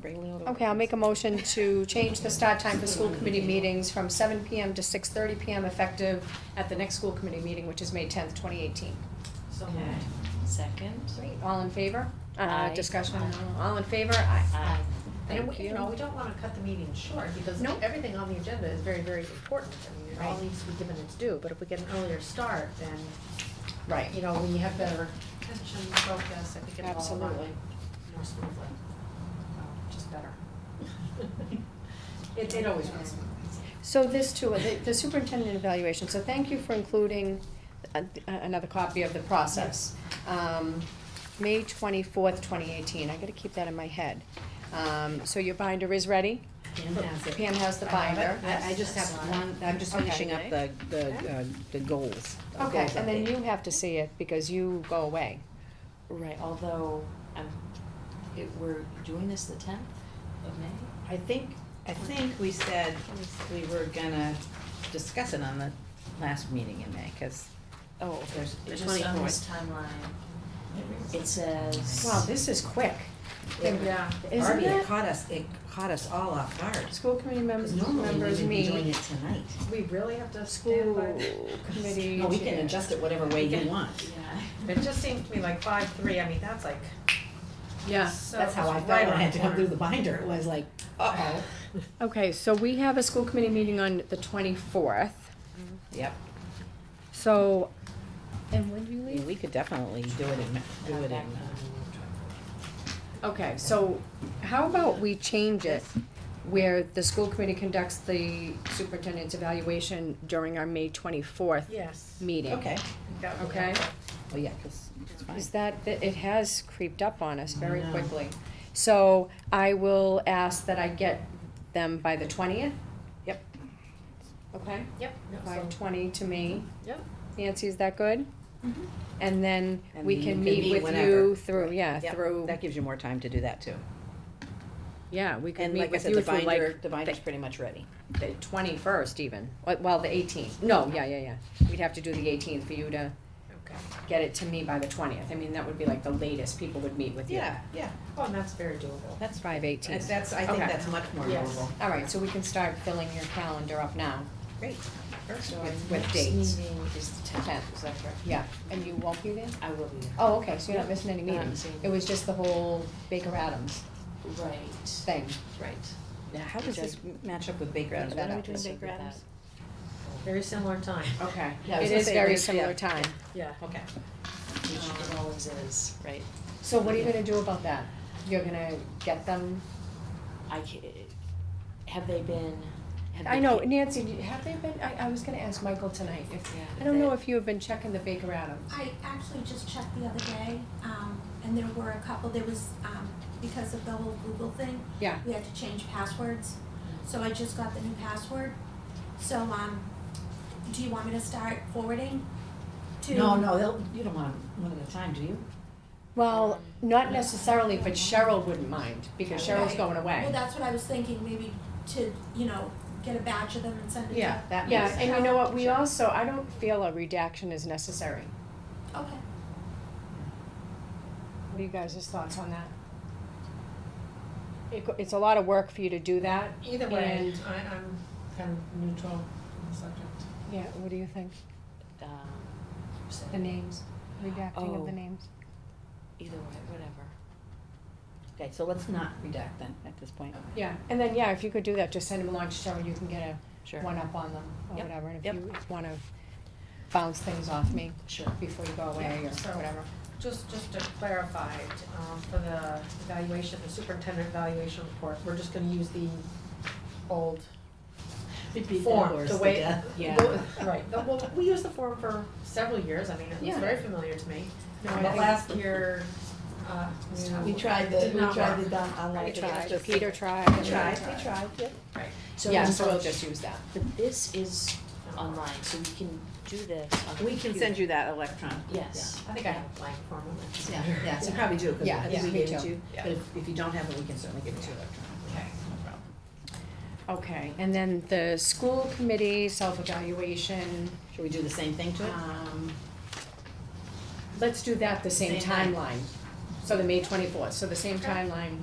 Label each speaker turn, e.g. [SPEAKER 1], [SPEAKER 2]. [SPEAKER 1] bring Leo to.
[SPEAKER 2] Okay, I'll make a motion to change the start time for school committee meetings from seven PM to six thirty PM effective at the next school committee meeting, which is May tenth, twenty eighteen.
[SPEAKER 3] So
[SPEAKER 1] Okay.
[SPEAKER 3] moved.
[SPEAKER 1] Second.
[SPEAKER 2] Great, all in favor? Uh,
[SPEAKER 1] Aye.
[SPEAKER 2] discussion,
[SPEAKER 3] Aye.
[SPEAKER 2] all in favor? Aye.
[SPEAKER 1] Aye.
[SPEAKER 3] And
[SPEAKER 1] Thank
[SPEAKER 3] we, you know, we don't wanna cut the meeting short, because
[SPEAKER 2] Nope.
[SPEAKER 3] everything on the agenda is very, very important, and it all
[SPEAKER 2] Right.
[SPEAKER 3] needs to be given its due, but if we get an earlier start, then,
[SPEAKER 2] Right.
[SPEAKER 3] you know, we have better attention, focus, I think it'll all run
[SPEAKER 2] Absolutely.
[SPEAKER 3] more smoothly, Uh, just better. It, it always runs smoothly.
[SPEAKER 2] So this too, the- the superintendent evaluation, so thank you for including a- another copy of the process. Um, May twenty-fourth, twenty eighteen, I gotta keep that in my head. Um, so your binder is ready?
[SPEAKER 4] Pam has it.
[SPEAKER 2] Pam has the binder.
[SPEAKER 4] I, I just have one, I'm just finishing up the, the, uh, the goals. the
[SPEAKER 2] Okay,
[SPEAKER 4] goals
[SPEAKER 2] and then
[SPEAKER 4] update.
[SPEAKER 2] you have to see it because you go away.
[SPEAKER 1] Right, although, um, it, we're doing this the tenth of May?
[SPEAKER 4] I think, I think we said we were gonna discuss it on the last meeting in May, cause
[SPEAKER 1] Oh,
[SPEAKER 4] there's
[SPEAKER 1] It
[SPEAKER 4] the
[SPEAKER 1] Just on this
[SPEAKER 4] twenty-fourth.
[SPEAKER 1] timeline, it says.
[SPEAKER 2] Wow, this is quick.
[SPEAKER 3] Yeah.
[SPEAKER 2] Isn't
[SPEAKER 4] Barbie, it
[SPEAKER 2] it?
[SPEAKER 4] caught us, it caught us all off guard,
[SPEAKER 2] School committee members,
[SPEAKER 4] cause normally we would
[SPEAKER 2] members
[SPEAKER 4] be doing
[SPEAKER 2] meet,
[SPEAKER 4] it tonight.
[SPEAKER 3] We really have to stand by.
[SPEAKER 2] school committee
[SPEAKER 4] No, we
[SPEAKER 2] chair.
[SPEAKER 4] can adjust it whatever way you
[SPEAKER 3] can-
[SPEAKER 4] want.
[SPEAKER 1] Yeah.
[SPEAKER 3] It just seemed to me like five, three, I mean, that's like,
[SPEAKER 2] Yeah.
[SPEAKER 3] so,
[SPEAKER 4] That's how I felt
[SPEAKER 3] right
[SPEAKER 4] when I
[SPEAKER 3] on
[SPEAKER 4] had to come
[SPEAKER 3] the
[SPEAKER 4] through the binder, it was like, uh-oh,
[SPEAKER 2] Okay, so we have a school committee meeting on the twenty-fourth,
[SPEAKER 4] yep.
[SPEAKER 2] so. And when do you
[SPEAKER 4] I mean, We could definitely do it in, Ma- do it in, uh,
[SPEAKER 2] Okay, so how about we change it where the school committee conducts the superintendent's evaluation during our May twenty-fourth
[SPEAKER 3] Yes.
[SPEAKER 2] meeting?
[SPEAKER 4] okay,
[SPEAKER 3] That would be
[SPEAKER 2] Okay?
[SPEAKER 3] helpful.
[SPEAKER 4] well, yeah, cause it's fine.
[SPEAKER 2] Is that, that it has creeped up on us very
[SPEAKER 4] I know.
[SPEAKER 2] quickly. So I will ask that I get them by the twentieth?
[SPEAKER 4] Yep.
[SPEAKER 2] Okay,
[SPEAKER 3] Yep. no,
[SPEAKER 2] by
[SPEAKER 3] so-
[SPEAKER 2] twenty to me.
[SPEAKER 3] Yep.
[SPEAKER 2] Nancy, is that good? And then
[SPEAKER 4] And
[SPEAKER 2] we
[SPEAKER 4] you
[SPEAKER 2] can
[SPEAKER 4] can
[SPEAKER 2] meet
[SPEAKER 4] meet
[SPEAKER 2] with you
[SPEAKER 4] whenever.
[SPEAKER 2] through, yeah,
[SPEAKER 4] Yep,
[SPEAKER 2] through,
[SPEAKER 4] That gives you more time to do that too.
[SPEAKER 2] yeah, we can
[SPEAKER 4] And
[SPEAKER 2] meet
[SPEAKER 4] like I
[SPEAKER 2] with
[SPEAKER 4] said,
[SPEAKER 2] you
[SPEAKER 4] the
[SPEAKER 2] through
[SPEAKER 4] binder,
[SPEAKER 2] like
[SPEAKER 4] the binder's pretty much ready.
[SPEAKER 2] the twenty-first even, Well- well, the eighteenth, no, yeah, yeah, yeah. We'd have to do the eighteenth for you to
[SPEAKER 3] Okay.
[SPEAKER 2] get it to me by the twentieth, I mean, that would be like the latest people would meet with you.
[SPEAKER 4] yeah,
[SPEAKER 3] Oh, and that's very doable.
[SPEAKER 4] that's
[SPEAKER 2] Five eighteen.
[SPEAKER 4] That's, that's, I think
[SPEAKER 2] Okay.
[SPEAKER 4] that's much more
[SPEAKER 3] Yes.
[SPEAKER 4] doable.
[SPEAKER 2] All right, so we can start filling your calendar up now.
[SPEAKER 4] Great.
[SPEAKER 2] So
[SPEAKER 4] With-
[SPEAKER 2] our
[SPEAKER 4] with
[SPEAKER 2] next
[SPEAKER 4] dates.
[SPEAKER 2] meeting is the tenth, is that correct? Yeah, and you won't be there?
[SPEAKER 1] I will be there.
[SPEAKER 2] Oh, okay, so you're not missing any
[SPEAKER 1] Not
[SPEAKER 2] meetings.
[SPEAKER 1] missing.
[SPEAKER 2] It was just the whole Baker Adams
[SPEAKER 1] Right,
[SPEAKER 2] thing.
[SPEAKER 1] right.
[SPEAKER 4] Now, how does this match up with Baker Adams?
[SPEAKER 2] What are we
[SPEAKER 1] Doing Baker Adams?
[SPEAKER 3] Very similar time.
[SPEAKER 2] Okay.
[SPEAKER 4] Yeah, I
[SPEAKER 2] It
[SPEAKER 4] was gonna
[SPEAKER 2] is
[SPEAKER 4] say,
[SPEAKER 2] very
[SPEAKER 4] yeah.
[SPEAKER 2] similar time.
[SPEAKER 3] Yeah.
[SPEAKER 2] Okay.
[SPEAKER 1] Which it always is, right?
[SPEAKER 2] So what are you gonna do about that? You're gonna get them?
[SPEAKER 1] I ca- have they been, have they?
[SPEAKER 2] I know,
[SPEAKER 1] ca-
[SPEAKER 2] Nancy, do you- have they been, I, I was gonna ask Michael tonight if,
[SPEAKER 1] Yeah,
[SPEAKER 2] I don't
[SPEAKER 1] they-
[SPEAKER 2] know if you have been checking the Baker Adams.
[SPEAKER 5] I actually just checked the other day, um, and there were a couple, there was, um, because of the whole Google thing,
[SPEAKER 2] Yeah,
[SPEAKER 5] we had to change passwords. So I just got the new password. So, um, do you want me to start forwarding to?
[SPEAKER 4] No, no, they'll, you don't want them one at a time, do you?
[SPEAKER 2] well, not necessarily, but Cheryl wouldn't mind, because Cheryl's
[SPEAKER 5] Right.
[SPEAKER 2] going away.
[SPEAKER 5] Well, that's what I was thinking, maybe to, you know, get a batch of them and send it to.
[SPEAKER 4] Yeah, that
[SPEAKER 2] Yeah,
[SPEAKER 4] makes sense.
[SPEAKER 2] and you know what, we also, I don't feel a redaction is necessary.
[SPEAKER 5] Okay.
[SPEAKER 2] What are you guys' thoughts on that? It, go- it's a lot of work for you to do that.
[SPEAKER 3] Either way,
[SPEAKER 2] And-
[SPEAKER 3] I, I'm kind of neutral on the subject.
[SPEAKER 2] Yeah, what do you think?
[SPEAKER 1] Um, so
[SPEAKER 2] The names, redacting of
[SPEAKER 1] Oh.
[SPEAKER 2] the names.
[SPEAKER 1] either way, whatever.
[SPEAKER 4] Okay, so let's not redact then at this point.
[SPEAKER 2] Yeah, and then, yeah, if you could do that, just send them along to Cheryl, you can get a
[SPEAKER 1] Sure.
[SPEAKER 2] one-up on them or
[SPEAKER 1] Yep,
[SPEAKER 2] whatever. And if
[SPEAKER 1] yep.
[SPEAKER 2] you wanna bounce things off me
[SPEAKER 1] Sure.
[SPEAKER 2] before you go away
[SPEAKER 3] Yeah,
[SPEAKER 2] or
[SPEAKER 3] so-
[SPEAKER 2] whatever.
[SPEAKER 3] Just, just to clarify, um, for the evaluation, the superintendent evaluation report, we're just gonna use the old form, the way.
[SPEAKER 2] Yeah.
[SPEAKER 3] the- Right, the- well, we used the form for several years, I mean, it was
[SPEAKER 2] Yeah.
[SPEAKER 3] very familiar to me. No,
[SPEAKER 4] But
[SPEAKER 3] I think
[SPEAKER 4] last
[SPEAKER 3] year, uh,
[SPEAKER 4] We tried the,
[SPEAKER 3] Did
[SPEAKER 4] we
[SPEAKER 3] not
[SPEAKER 4] tried
[SPEAKER 3] work.
[SPEAKER 4] the dumb, I like it after.
[SPEAKER 2] Peter tried.
[SPEAKER 4] We tried, we tried, yeah.
[SPEAKER 1] So
[SPEAKER 2] Yeah,
[SPEAKER 1] this-
[SPEAKER 2] so we'll just use that.
[SPEAKER 1] But this is online, so we can do this on the
[SPEAKER 4] We can send
[SPEAKER 1] computer.
[SPEAKER 4] you that electron.
[SPEAKER 1] Yes.
[SPEAKER 3] I think I have a blank form on that.
[SPEAKER 4] Yeah, yeah, so probably do, because
[SPEAKER 2] Yeah,
[SPEAKER 4] I think
[SPEAKER 2] yeah,
[SPEAKER 4] we
[SPEAKER 2] me
[SPEAKER 4] gave it
[SPEAKER 2] too.
[SPEAKER 4] to you, but if, if you don't have it, we can certainly give it to you electronically.
[SPEAKER 3] Okay.
[SPEAKER 4] No problem.
[SPEAKER 2] Okay, and then the school committee self-evaluation,
[SPEAKER 4] Should we do the same thing to it?
[SPEAKER 2] um, let's do that the same
[SPEAKER 4] Same night.
[SPEAKER 2] timeline. So the May twenty-fourth, so the same
[SPEAKER 3] Okay.
[SPEAKER 2] timeline